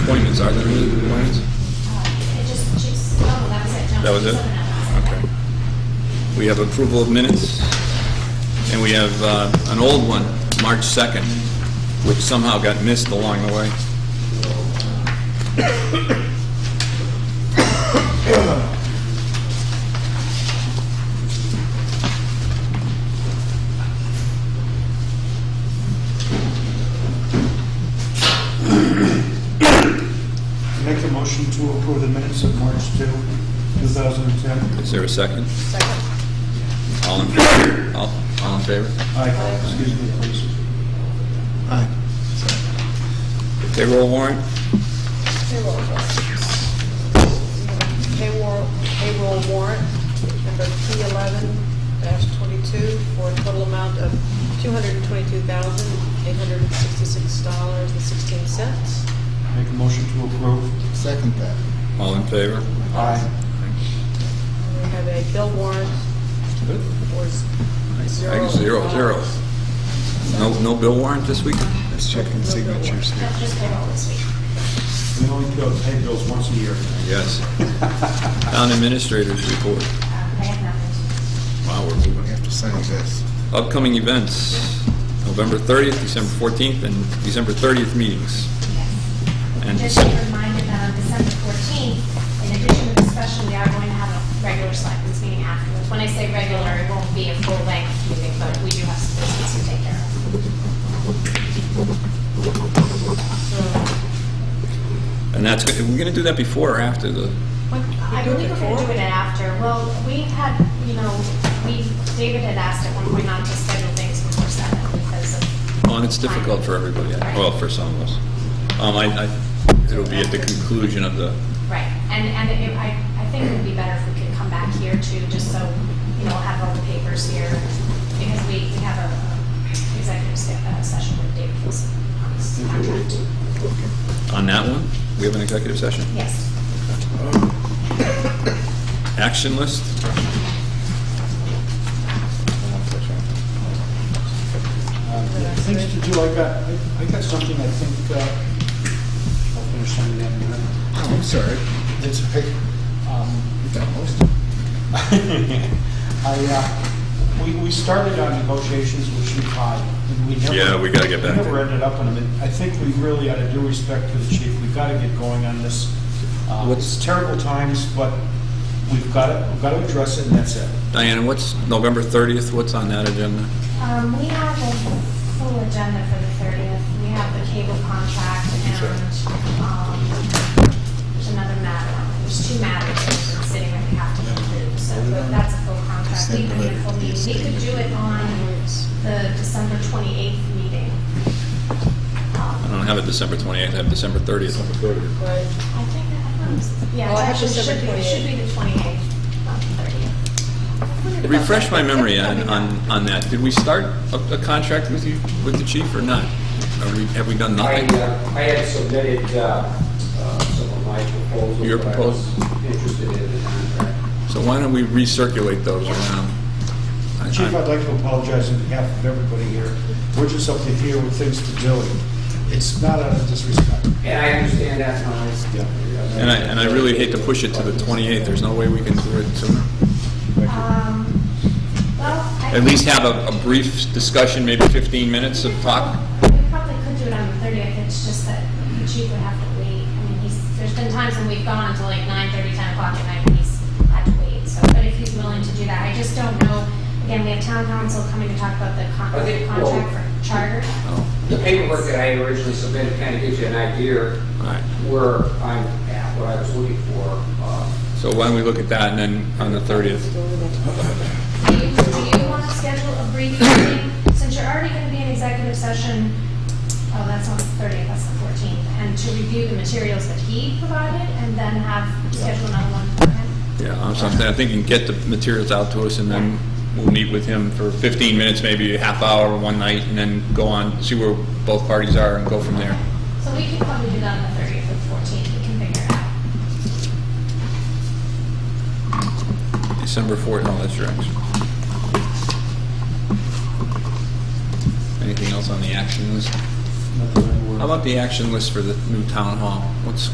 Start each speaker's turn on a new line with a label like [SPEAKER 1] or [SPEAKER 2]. [SPEAKER 1] appointments, are there any appointments?
[SPEAKER 2] It just, she's, oh, that was
[SPEAKER 1] That was it?
[SPEAKER 2] it. No, she's looking at us.
[SPEAKER 1] Okay. We have approval of minutes, and we have uh, an old one, March 2nd, which somehow got missed along the way.
[SPEAKER 3] Make a motion to approve the minutes of March 2, 2010.
[SPEAKER 1] Is there a second? Second. All in favor? All all in favor?
[SPEAKER 3] Aye, excuse me, please.
[SPEAKER 1] Payroll warrant?
[SPEAKER 4] Payroll warrant. Payroll, payroll warrant, number P eleven twenty-two, for a total amount of two hundred and twenty-two thousand, eight hundred and sixty-six dollars and sixteen cents.
[SPEAKER 3] Make a motion to approve.
[SPEAKER 5] Second that.
[SPEAKER 1] All in favor?
[SPEAKER 3] Aye.
[SPEAKER 4] We have a bill warrant for z- zero.
[SPEAKER 1] Zero, zero. zero. No, no bill warrant this week?
[SPEAKER 5] Let's check in signatures here.
[SPEAKER 2] That's just payroll this week.
[SPEAKER 3] We only go pay bills once a year.
[SPEAKER 1] Yes. Town administrators report.
[SPEAKER 2] Um, I have nothing.
[SPEAKER 1] Wow, we're moving.
[SPEAKER 5] We have to sign this.
[SPEAKER 1] Upcoming events, November 30th, December 14th, and December 30th meetings. And
[SPEAKER 2] Yes. Just
[SPEAKER 1] so-
[SPEAKER 2] a reminder that on December 14th, in addition to the special, we are going to have a regular selectmen's meeting afterwards. When I say regular, it won't be a full-length meeting, but we do have some business to take care of.
[SPEAKER 1] And that's, are we going to do that before or after the,
[SPEAKER 2] I believe we're going to do it after. Well, we had, you know, we, David had asked at one point not to schedule things before seven because of.
[SPEAKER 1] oh, and it's difficult for everybody, I- well, for some of us. Um, I, I, it'll be at the conclusion of the,
[SPEAKER 2] Right, and, and it- I, I think it would be better if we could come back here too, just so, you know, have all the papers here, because we, we have a a executive se- uh, session with David Wilson on his contract.
[SPEAKER 1] on that one, we have an executive session.
[SPEAKER 2] Yes.
[SPEAKER 1] Action list?
[SPEAKER 3] Uh, Things to do, I got, I- I got something I think, uh, I'll finish signing that in a minute.
[SPEAKER 5] Oh, I'm sorry. That's okay.
[SPEAKER 3] Um,
[SPEAKER 5] You got most of it.
[SPEAKER 3] I, uh, we, we started on negotiations with Chief Hyde. and we never-
[SPEAKER 1] Yeah, we gotta get back
[SPEAKER 3] We
[SPEAKER 1] to
[SPEAKER 3] never
[SPEAKER 1] it.
[SPEAKER 3] ended up on him. And I think we really, out of due respect to the chief, we've got to get going on this. Uh,
[SPEAKER 1] What's-
[SPEAKER 3] It's terrible times, but we've got to, we've got to address it, and that's it.
[SPEAKER 1] Diana, what's November 30th, what's on that agenda?
[SPEAKER 2] Um, we have a full agenda for the thirtieth, we have the cable contract and, um, there's another matter, there's two matters that are sitting that we have to conclude, so but that's a full contract. We could, do a full meeting. we could do it on the December twenty-eighth meeting. Um,
[SPEAKER 1] I don't have it December 28th, I have December 30th.
[SPEAKER 4] Right.
[SPEAKER 2] I think, I don't know. yeah,
[SPEAKER 4] Well,
[SPEAKER 2] it
[SPEAKER 4] I have
[SPEAKER 2] actually
[SPEAKER 4] December
[SPEAKER 2] should be, it should be the twenty-eighth, not the thirtieth.
[SPEAKER 1] Refresh my memory on, on, on that. Did we start a, a contract with you, with the chief or not? Or we- have we done
[SPEAKER 6] I,
[SPEAKER 1] nothing?
[SPEAKER 6] uh, I had submitted uh, uh, some of my proposals.
[SPEAKER 1] Your
[SPEAKER 6] but I was Interested in the contract.
[SPEAKER 1] So why don't we recirculate those around? I- I-
[SPEAKER 3] Chief, I'd like to apologize on behalf of everybody here. We're just up to here with things to do. It's not out of disrespect.
[SPEAKER 6] And I understand that, Tom.
[SPEAKER 1] And I, and I really hate to push it to the 28th. There's no way we can do it sooner.
[SPEAKER 2] Um, well, I.
[SPEAKER 1] At least have a, a brief discussion, maybe 15 minutes of talk?
[SPEAKER 2] We probably could do it on the thirtieth, it's just that the chief would have to wait. I mean, he's, there's been times when we've gone until like nine thirty, ten o'clock at night, and he's had to wait, so, but if he's willing to do that, I just don't know. Again, we have town council coming to talk about the con-
[SPEAKER 6] I think-
[SPEAKER 2] contract
[SPEAKER 6] well-
[SPEAKER 2] for charter.
[SPEAKER 1] Oh,
[SPEAKER 6] The paperwork that I originally submitted kind of gives you an idea
[SPEAKER 1] all right.
[SPEAKER 6] where I'm at, what I was looking for. uh,
[SPEAKER 1] So why don't we look at that and then on the 30th?
[SPEAKER 2] Do you, do you want to schedule a brief meeting, since you're already gonna be in executive session, oh, that's on the thirtieth, that's the fourteenth, and to review the materials that he provided, and then have, schedule another one for him?
[SPEAKER 1] Yeah, I'm something, I think you can get the materials out to us and then we'll meet with him for 15 minutes, maybe a half hour, one night, and then go on, see where both parties are and go from there.
[SPEAKER 2] So we can probably do that on the thirtieth or fourteenth, we can figure it out.
[SPEAKER 1] December 4th, no, that's your action. Anything else on the action list?
[SPEAKER 3] Nothing I were
[SPEAKER 1] How about the action list for the new town hall? What's